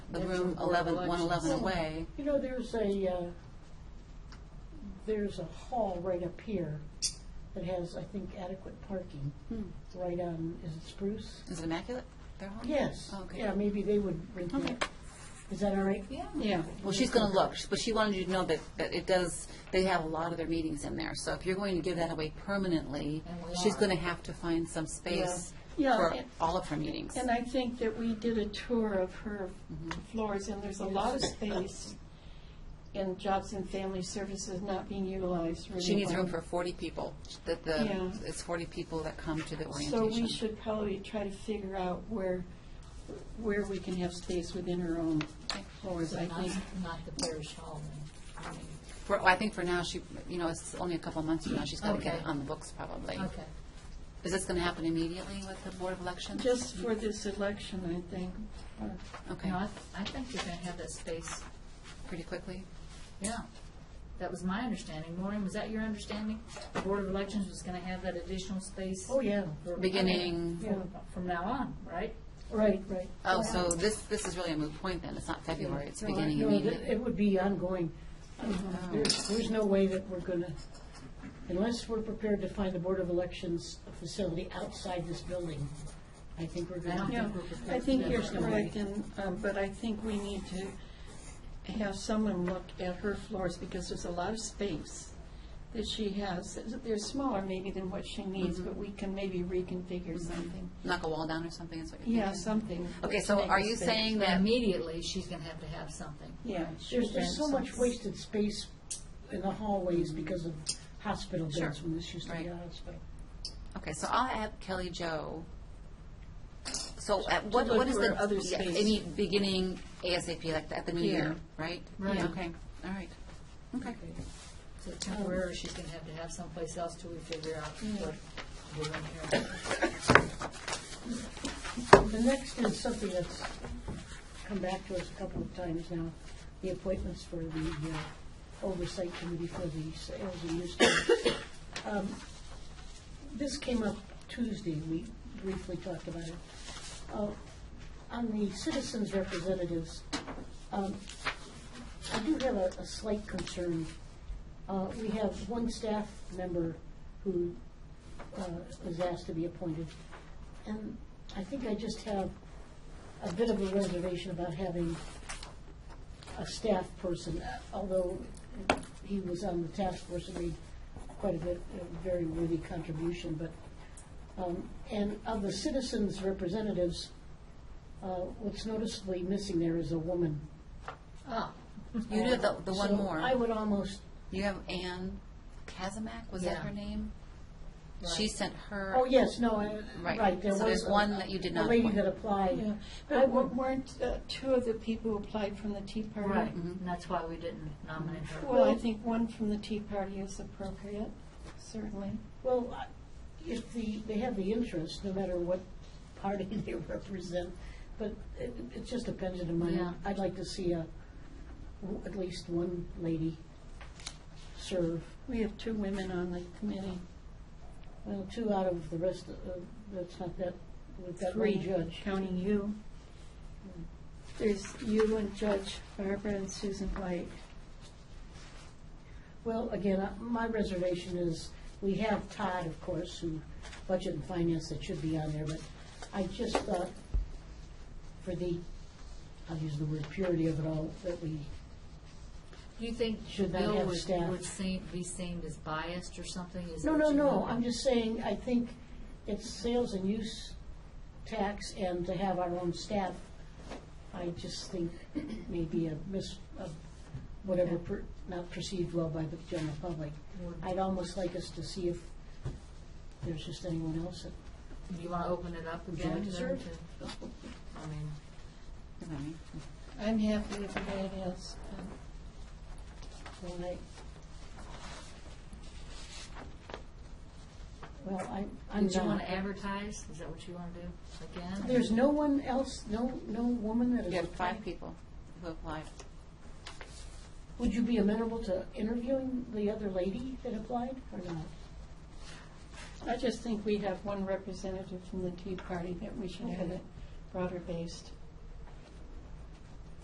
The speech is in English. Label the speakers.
Speaker 1: the
Speaker 2: That's
Speaker 1: room
Speaker 2: from Board of
Speaker 1: eleven, one eleven
Speaker 2: Elections.
Speaker 1: away.
Speaker 2: You know, there's a, uh, there's a hall right up here that has, I think, adequate parking,
Speaker 1: Hmm.
Speaker 2: right on, is it Spruce?
Speaker 1: Is it immaculate, their home?
Speaker 2: Yes.
Speaker 1: Okay.
Speaker 2: Yeah, maybe they would rent
Speaker 1: Okay.
Speaker 2: that. Is that all right?
Speaker 1: Yeah.
Speaker 2: Yeah.
Speaker 1: Well, she's going to look, but she wanted you to know that, that it does, they have a lot of their meetings in there. So if you're going to give that away permanently,
Speaker 3: And we
Speaker 1: she's
Speaker 3: are.
Speaker 1: going to have to find some space
Speaker 4: Yeah.
Speaker 1: for
Speaker 4: Yeah.
Speaker 1: all of her meetings.
Speaker 4: And I think that we did a tour of her
Speaker 1: Mm-hmm.
Speaker 4: floors, and there's a lot of space in jobs and family services not being utilized really
Speaker 1: She needs
Speaker 4: well.
Speaker 1: room for forty people, that the,
Speaker 4: Yeah.
Speaker 1: it's forty people that come to the
Speaker 4: So we
Speaker 1: orientation.
Speaker 4: should probably try to figure out where, where we can have space within her own floors, I
Speaker 3: Not,
Speaker 4: think.
Speaker 3: not the parish hall. I mean,
Speaker 1: For, I think for now, she, you know, it's only a couple months from now, she's got to get
Speaker 3: Okay.
Speaker 1: it on the books probably.
Speaker 3: Okay.
Speaker 1: Is this going to happen immediately with the Board of Elections?
Speaker 4: Just for this election, I think. or-
Speaker 1: Okay,
Speaker 3: No, I, I think you're gonna have that space,
Speaker 1: pretty quickly?
Speaker 3: yeah. That was my understanding. Maureen, was that your understanding? The Board of Elections was gonna have that additional space?
Speaker 2: Oh, yeah.
Speaker 3: for-
Speaker 1: Beginning-
Speaker 3: From- From now on, right?
Speaker 2: Right, right.
Speaker 1: Oh, so this, this is really a moot point then, it's not February, it's
Speaker 2: No,
Speaker 1: beginning
Speaker 2: no, th-
Speaker 1: immediately. Oh.
Speaker 2: It would be ongoing. There's, there's no way that we're gonna, unless we're prepared to find the Board of Elections facility outside this building, I think we're gonna.
Speaker 3: I don't
Speaker 4: Yeah,
Speaker 3: think we're prepared
Speaker 4: I think
Speaker 3: for
Speaker 4: you're
Speaker 3: that.
Speaker 4: correct, and, um, but I think we need to have someone look at her floors, because there's a lot of space that she has. They're smaller maybe than what she needs, but we can maybe reconfigure something.
Speaker 1: Knock a wall down or something is what you're thinking?
Speaker 4: Yeah, something.
Speaker 1: Okay,
Speaker 4: to
Speaker 1: so
Speaker 4: make
Speaker 1: are
Speaker 4: a
Speaker 1: you
Speaker 4: space.
Speaker 1: saying
Speaker 3: But
Speaker 1: that,
Speaker 3: Immediately, she's gonna have to have something.
Speaker 4: Yeah.
Speaker 2: There's just so much
Speaker 4: waste.
Speaker 2: wasted space in the hallways because of hospital beds
Speaker 1: Sure.
Speaker 2: when this used to be
Speaker 1: Right.
Speaker 2: a hospital.
Speaker 1: okay, so I'll add Kelly Jo. So at what,
Speaker 4: look
Speaker 1: what is
Speaker 4: for
Speaker 1: the,
Speaker 4: other
Speaker 1: yeah,
Speaker 4: space.
Speaker 1: any beginning ASAP, like at the new
Speaker 4: Yeah.
Speaker 1: year, right?
Speaker 3: Right.
Speaker 1: Yeah, Okay, all right, okay.
Speaker 2: Oh.
Speaker 3: So temporarily, she's gonna have to have someplace else till we figure out
Speaker 2: Mm.
Speaker 3: what we're gonna have.
Speaker 2: The next is something that's come back to us a couple of times now, the appointments for the uh, oversight committee for the sales and use tax. Um, This came up Tuesday, we briefly talked about it. Uh, On the citizens representatives, um, I do have a a slight concern. Uh, We have one staff member who uh, was asked to be appointed. And I think I just have a bit of a reservation about having a staff person, although he was on the task force and made quite a bit, a very worthy contribution, but, um, and of the citizens representatives, uh, what's noticeably missing there is a woman.
Speaker 3: Ah,
Speaker 1: You do have the, the one
Speaker 2: So
Speaker 1: more.
Speaker 2: I would almost,
Speaker 1: You have Anne Kazimak, was that
Speaker 3: Yeah.
Speaker 1: her name?
Speaker 3: Right.
Speaker 1: She sent her.
Speaker 2: oh, yes, no, I-
Speaker 1: Right.
Speaker 2: right, there
Speaker 1: So
Speaker 2: was
Speaker 1: there's
Speaker 2: a-
Speaker 1: one that you did not
Speaker 2: A lady
Speaker 1: appoint.
Speaker 2: that applied. I
Speaker 4: But wa-
Speaker 2: would-
Speaker 4: weren't uh, two of the people who applied from the Tea Party?
Speaker 3: right,
Speaker 1: Mm-hmm.
Speaker 3: and that's why we didn't nominate her.
Speaker 4: Well, I think one from the Tea Party is appropriate, certainly.
Speaker 2: Well, I- if the, they have the interest, no matter what party they represent, but it, it's just a pension of mine.
Speaker 3: Yeah.
Speaker 2: I'd like to see a, w- at least one lady serve,
Speaker 4: We have two women on the committee.
Speaker 2: well, two out of the rest, of- of- that's not that, with that
Speaker 4: Three,
Speaker 2: one judge.
Speaker 4: Counting you. There's you and Judge Barbara and Susan White.
Speaker 2: Well, again, I- my reservation is, we have Todd, of course, who, Budget and Finance, that should be on there, but I just thought, for the, I'll use the word purity of it all, that we
Speaker 3: Do you think
Speaker 2: Should they
Speaker 3: Bill
Speaker 2: have
Speaker 3: would,
Speaker 2: staff?
Speaker 3: would seem, be seen as biased or something? Is
Speaker 2: No,
Speaker 3: that
Speaker 2: no,
Speaker 3: what you
Speaker 2: no,
Speaker 3: want?
Speaker 2: I'm just saying, I think it's sales and use tax and to have our own staff, I just think maybe a mis, a whatever, per- not perceived well by the general public. I'd almost like us to see if there's just anyone else that
Speaker 3: Do you want to open it up
Speaker 2: Would you
Speaker 3: again?
Speaker 2: like to
Speaker 3: then
Speaker 2: serve?
Speaker 3: to- I mean,
Speaker 1: Is that me?
Speaker 4: I'm happy if anybody else. um,
Speaker 2: Well, I, well, I, I'm
Speaker 3: Did you want
Speaker 2: not.
Speaker 3: to advertise? Is that what you want to do again?
Speaker 2: There's no one else, no, no woman that is.
Speaker 1: You have five
Speaker 2: appointed?
Speaker 1: people who applied.
Speaker 2: Would you be amenable to interviewing the other lady that applied or not?
Speaker 4: I just think we have one representative from the Tea Party that we should have it broader based.